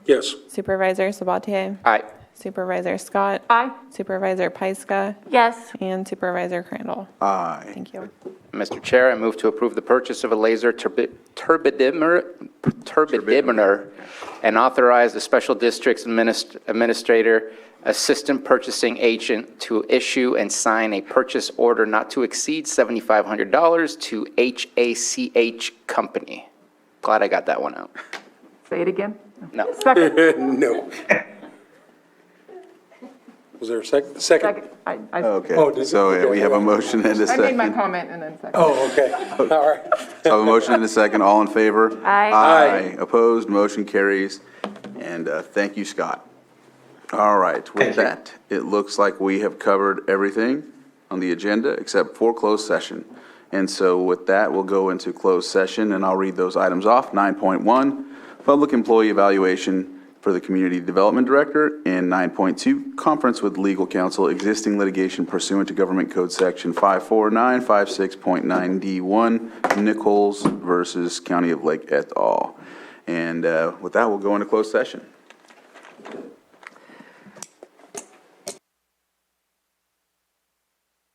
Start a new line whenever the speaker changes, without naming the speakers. Yes.
Supervisor Sabatier?
Aye.
Supervisor Scott?
Aye.
Supervisor Pyska?
Yes.
And Supervisor Crandall?
Aye.
Thank you.
Mr. Chair, I move to approve the purchase of a laser turbi- turbidimer, turbidimeter, and authorize the Special Districts Adminis- Administrator Assistant Purchasing Agent to issue and sign a purchase order not to exceed $7,500 to HACH Company. Glad I got that one out.
Say it again.
No.
Second,
No.
Was there a second? Second.
second. I, I,
Oh,
Okay,
did-
so yeah, we have a
okay.
motion and a
I made my
second.
comment and then second.
Oh, okay. All right.
So a motion and a second, all in favor?
Aye.
Aye. Opposed, motion carries. And uh, thank you, Scott. All right, with that, it looks like we have covered everything on the agenda except for closed session. And so with that, we'll go into closed session, and I'll read those items off. 9.1, public employee evaluation for the Community Development Director, and 9.2, conference with legal counsel, existing litigation pursuant to Government Code Section 54956.9D1, Nichols versus County of Lake et al. And uh, with that, we'll go into closed session.